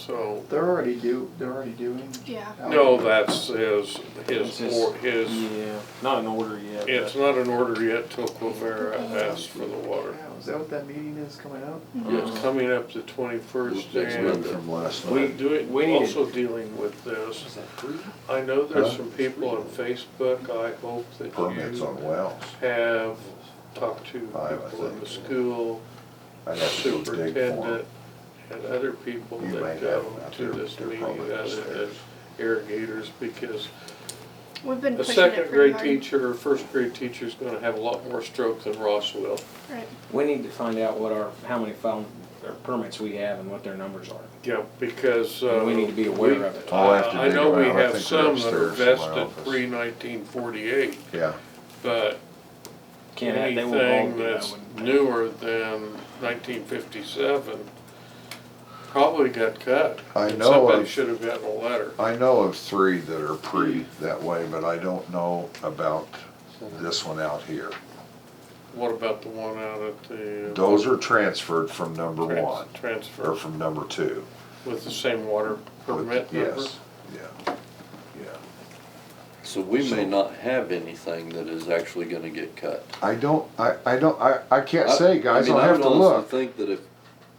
so. They're already do, they're already doing. Yeah. No, that's his, his, It's just- or- his, Yeah, not in order yet. it's but- not an order yet till Quivera asks for the water. Wow, is that what that meeting is coming up? Mm-hmm. It's coming up the twenty-first Next month and from last we night. do it, We need- also dealing with this. I know there's some people on Facebook, I hope that Permits you on wells. have talked to Five, I people in the think. school, I'd have to go dig for 'em. superintendent, and other people You may that have go them out to there, this they're meeting probably other than upstairs. irrigators, because We've been a pushing it second pretty grade hard. teacher or first grade teacher's gonna have a lot more stroke than Ross will. Right. We need to find out what our, how many phone, or permits we have and what their numbers are. Yeah, because. uh, And we need to be aware of it. I'll have to I- dig I know we around. I have think they're some that are upstairs in my vested office. pre nineteen forty-eight, Yeah, but Can't have, they won't all anything do that that's one. newer than nineteen fifty-seven probably got cut. I And know Somebody of- should have gotten a letter. I know of three that are pre that way, but I don't know about this one out here. What about the one out at the? uh, Those are transferred from number Trans- one, or Transfer from number two. with the same water permit number? Yes, yeah, yeah. So we So- may not have anything that is actually gonna get cut. I don't, I, I don't, I, I can't say, guys, I mean, I'll have to would honestly look. Think that if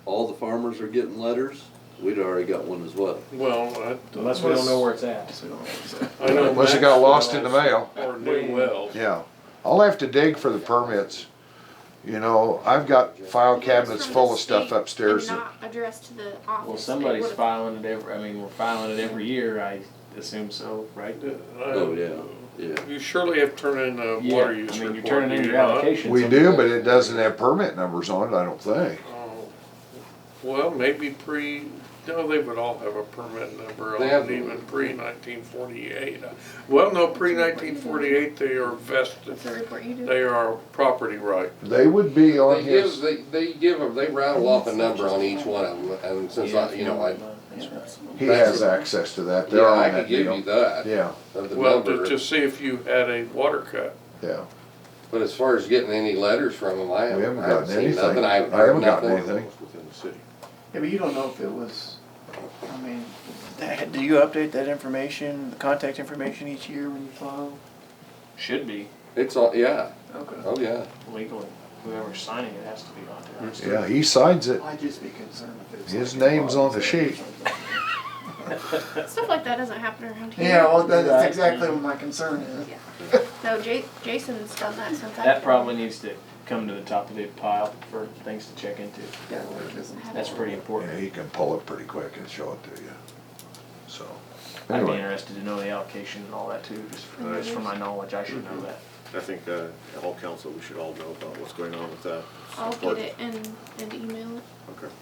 all the farmers are getting letters, we'd already got one as well. Well, I. Unless we don't know where it's at. So, so- I know Unless it got lost in the Maxwell's mail. Or new wells. Yeah, I'll have to dig for the permits. You know, I've got file cabinets From full the of stuff state and upstairs. that- Not addressed to the office. Well, They somebody's would've- filing it every, I mean, we're filing it every year, I assume so, right? Oh, yeah, yeah. Uh, You surely have to turn in a Yeah, water use I mean, report. you're turning in do your you not? application. We do, but it doesn't have permit numbers on it, I don't think. Oh, Well, maybe pre, no, they would all have a permit number, They have- on even pre nineteen forty-eight. Well, no, pre nineteen forty-eight, they are vested, That's a report you do. they are property right. They would be They on give, his, they, they give them, they rattle off a number on each one of them, and since I, you know, I, he has access to that, they're yeah, I on could that give you deal. that, Yeah, of the Well, to, number. to see if you had a water cut. yeah, But as far as getting any letters from them, I we haven't haven't, I haven't gotten seen anything, nothing, I I haven't heard haven't gotten nothing. anything. Yeah, but you don't know if it was, I mean, that- do you update that information, the contact information each year when you file? Should be It's all, yeah, Okay. oh, yeah. legally, whoever's signing it has to be on there. Mm-hmm. Yeah, he signs it, I'd just be concerned if it was. His like a name's on closet the or sheet. something. Stuff like that doesn't happen around here. Yeah, well, that- that's exactly what my concern is. No, Ja- Jason's done that since I've That been- probably needs to come to the top of the pile for things to check into. Yeah, well, it isn't. That's pretty yeah, important. he can pull it pretty quick and show it to you, so. I'd be Anyway. interested to know the allocation and all that too, just for, just for my knowledge, I should know that. I think uh, at all council, we should all know about what's going on with that. I'll get it and, and email it. Okay.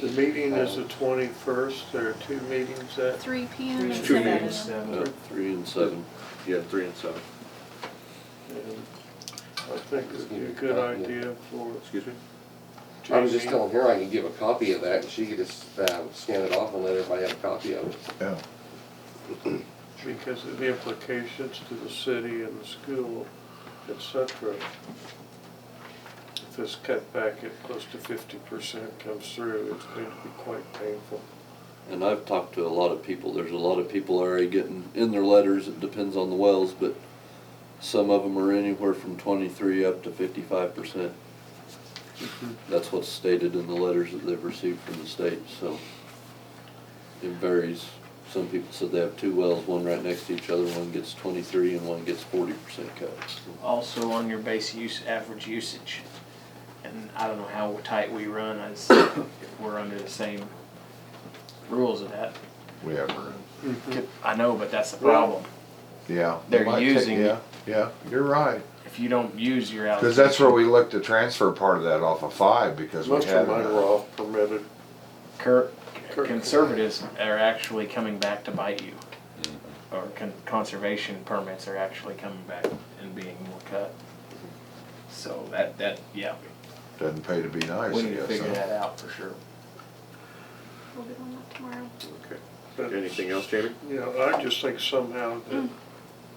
The meeting is the twenty-first, there are two meetings at, Three P M. and Two seven meetings, a.m. seven. Uh, Three and seven. Yeah, three and seven. and I think it'd be a good idea for Excuse me? I was just Jamie. telling her I could give a copy of that, and she could just, uh, scan it off and let everybody have a copy of it. Yeah, because of the implications to the city and the school, et cetera. If this cutback at close to fifty percent comes through, it's going to be quite painful. And I've talked to a lot of people, there's a lot of people already getting in their letters, it depends on the wells, but some of them are anywhere from twenty-three up to fifty-five percent. That's what's stated in the letters that they've received from the state, so it varies. Some people said they have two wells, one right next to each other, one gets twenty-three and one gets forty percent cut. Also on your base use, average usage, and I don't know how tight we run, as if we're under the same rules of that. we have room, I know, but that's the problem. yeah. They're Might take- using- Yeah, yeah, you're right, If you don't use your allocation. cause that's where we looked to transfer part of that off of five, because we Most had. of mine were off permitted. Cur- Cur- conservatives are actually coming back to bite you. Or con- conservation permits are actually coming back and being more cut. So that, that, yeah, Doesn't pay to be nice, we I need to guess, figure huh? that out for sure. We'll get on that tomorrow. But, Okay. Anything else, Jamie? You know, I just think somehow that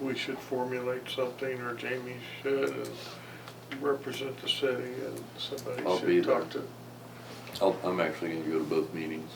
we should formulate something, or Jamie should, and represent the city, and I'll somebody be should talk to. I'll, I'm actually gonna go to both meetings.